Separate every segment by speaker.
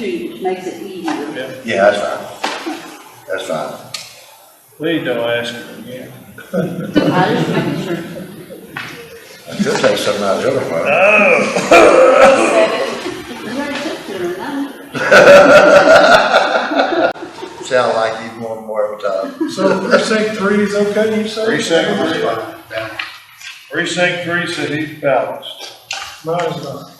Speaker 1: to makes it easier.
Speaker 2: Yeah,
Speaker 3: Yeah, that's fine. That's fine.
Speaker 2: please don't ask her again.
Speaker 1: I just making sure.
Speaker 3: She'll take something out of the other one.
Speaker 1: You already took care of that.
Speaker 3: Sound like you want more uh, of a time.
Speaker 4: So precinct three is okay, you say?
Speaker 2: Precinct three. Precinct three said he's balanced.
Speaker 4: Mine's not.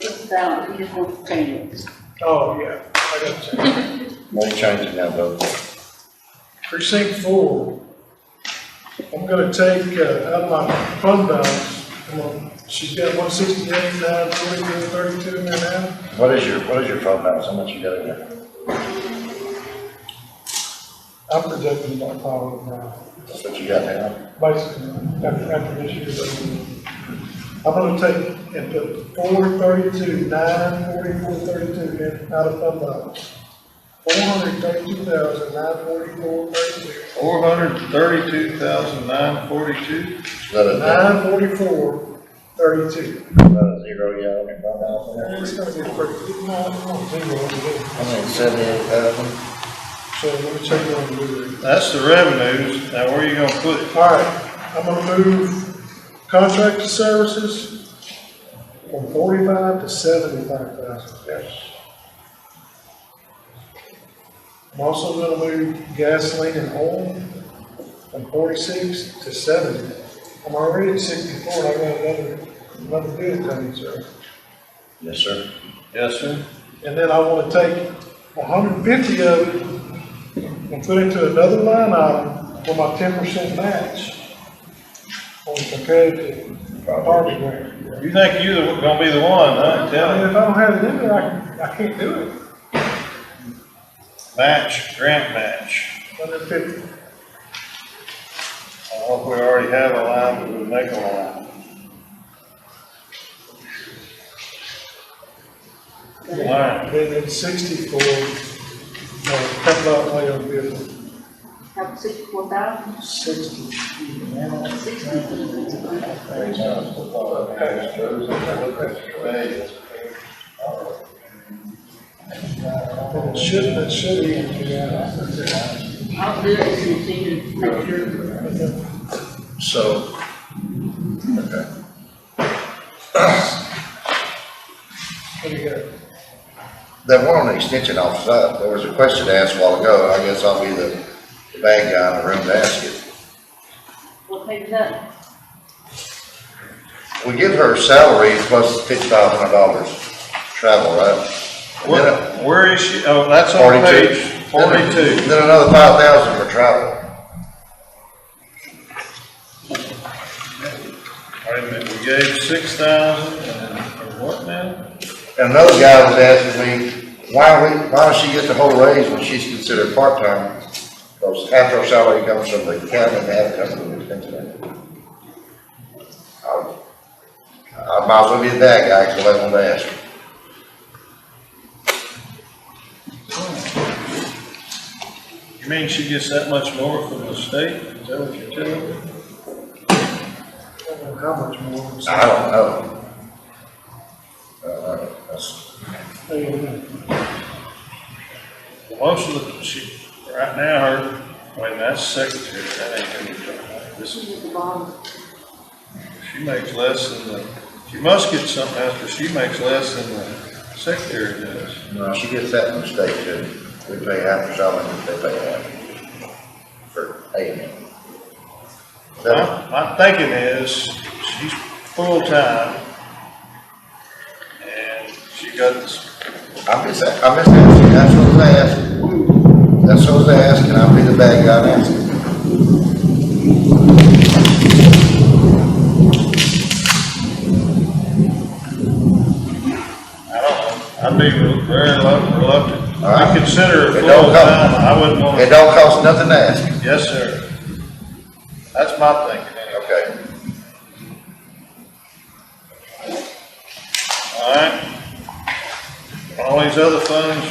Speaker 1: It's valid, he just wants to change it.
Speaker 4: Oh, yeah, I got you.
Speaker 3: Won't change it now, though.
Speaker 4: Precinct four. I'm gonna take, uh, out of my fund balance, come on, she's got one sixty-eight, nine forty-two, thirty-two in there now.
Speaker 3: What is your, what is your fund balance? How much you got in there?
Speaker 4: I'm projecting my power now,
Speaker 3: That's what you got now?
Speaker 4: basically, after, after this year. but I'm gonna take and put four thirty-two, nine forty-four, thirty-two in, out of fund balance. Four hundred thirty-two thousand, nine forty-four, thirty-two.
Speaker 2: Four hundred thirty-two thousand nine forty-two.
Speaker 3: Is that a, is
Speaker 4: Nine forty-four, thirty-two.
Speaker 3: that a zero yet on your fund balance?
Speaker 4: It's
Speaker 3: in there?
Speaker 4: gonna be pretty, no, it's not zero, it's
Speaker 3: I mean, seventy-eight thousand.
Speaker 4: a little. so let me check it on the Blu-ray.
Speaker 2: That's the revenues. Now, where are you gonna put it?
Speaker 4: All right, I'm gonna move contracted services from forty-five to seventy-five thousand.
Speaker 3: Yes.
Speaker 4: I'm also gonna move gasoline and oil from forty-six to seventy. I'm already at sixty-four, I got another, another bid coming, sir.
Speaker 3: Yes, sir.
Speaker 2: Yes, sir.
Speaker 4: And then I wanna take hundred and fifty of it and put it into another line item for my ten percent match on competitive
Speaker 3: Property.
Speaker 4: property grant.
Speaker 2: You think you the gonna be the one, huh?
Speaker 4: I
Speaker 2: Tell
Speaker 4: mean,
Speaker 2: me.
Speaker 4: if I don't have it in there, I, can- I can't do it,
Speaker 2: Match, grant match.
Speaker 4: hundred and fifty.
Speaker 2: I hope we already have a line, but we'll make a line. All right.
Speaker 4: And then sixty for, uh, capital outlay on vehicle,
Speaker 1: Have sixty-four thousand,
Speaker 4: sixty.
Speaker 1: sixty. Well,
Speaker 4: And it should, it should be, yeah.
Speaker 1: I'll do it as soon as you make sure.
Speaker 3: So, okay.
Speaker 4: There you go.
Speaker 3: That one on the extension office, uh, there was a question asked a while ago, I guess I'll be the the bad guy in the room to ask it.
Speaker 1: What page is that?
Speaker 3: We give her salary plus fifty-five hundred dollars travel, right? And then a-
Speaker 2: Where, where is she? Oh, that's on
Speaker 3: Forty-two.
Speaker 2: page forty-two.
Speaker 3: Then another five thousand for travel.
Speaker 2: Wait a minute, we gave six thousand and, and what now?
Speaker 3: And another guy was asking me, why we, why does she get the whole raise when she's considered part-time? Because half her salary comes from the county and half comes from the extension. I I might as well be that guy, because I want to ask.
Speaker 2: You mean she gets that much more from the state? Is that what you're telling me?
Speaker 4: I don't know how much more. I'm saying.
Speaker 3: I don't know. Uh, that's-
Speaker 4: There you go.
Speaker 2: Most of the, she, right now, her, wait, that's secretary, that ain't gonna be done. This is,
Speaker 1: She's at the bottom.
Speaker 2: she makes less than the, she must get something else, but she makes less than the secretary does.
Speaker 3: No, she gets that from the state too. We pay half her salary, and they pay half for paying. That-
Speaker 2: My, my thinking is, she's full-time, and she got this
Speaker 3: I miss that, I miss that, that's what I was asking. That's what I was asking, I'll be the bad guy and ask it.
Speaker 2: I don't know, I'd be re- very relu- reluctant.
Speaker 3: All right.
Speaker 2: I consider it
Speaker 3: It don't
Speaker 2: full-time,
Speaker 3: come.
Speaker 2: I wouldn't
Speaker 3: It
Speaker 2: want,
Speaker 3: don't cost nothing to ask.
Speaker 2: yes, sir. That's my thinking, anyway.
Speaker 3: Okay.
Speaker 2: all right? All these other funds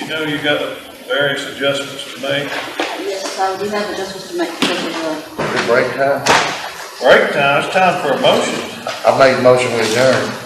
Speaker 2: are, you- you know, you got various adjustments to make.
Speaker 1: Yes, so we have adjustments to make, because of
Speaker 3: Is it break time?
Speaker 1: the
Speaker 5: Break time, it's time for a motion.
Speaker 2: I made a motion with adjourn.